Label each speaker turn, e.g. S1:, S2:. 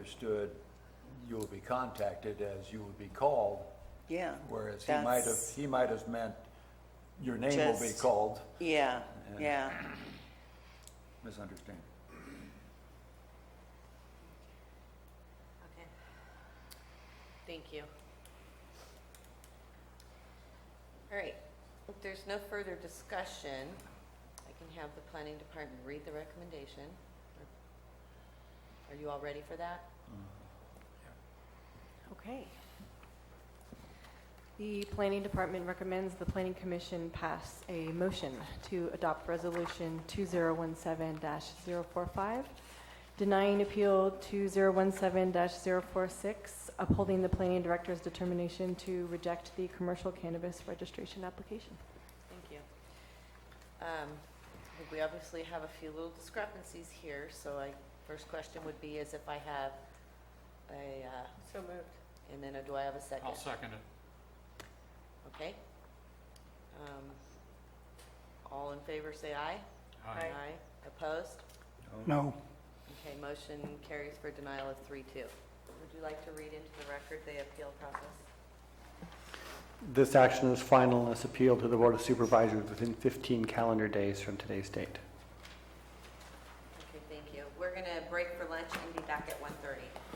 S1: understood you will be contacted as you would be called,
S2: Yeah.
S1: whereas he might have,
S2: that's-
S1: he might have meant your name will be
S2: Just-
S1: called.
S2: Yeah, yeah.
S1: Misunderstanding.
S3: Okay. Thank you. All right, if there's no further discussion, I can have the planning department read the recommendation. Are you all ready for that?
S1: Mm-hmm.
S4: Okay. The Planning Department recommends the Planning Commission pass a motion to adopt Resolution 2017-045, denying Appeal 2017-046, upholding the Planning Director's determination to reject the commercial cannabis registration application.
S3: Thank you. Um, I think We obviously have a few little discrepancies here, so I, first question would be is if I have a, uh,
S5: So moved.
S3: and then do I have a 2nd
S6: I'll second it.
S3: Okay. Um, All in favor, say aye.
S6: Aye.
S5: Aye.
S3: Opposed?
S7: No,
S3: Okay, motion carries for denial of three two. Would you like to read into the record the appeal process?
S7: this action is final and is appealed to the Board of Supervisors within 15 calendar days from today's date.
S3: Okay, thank you. We're going to break for lunch and be back at 1:30.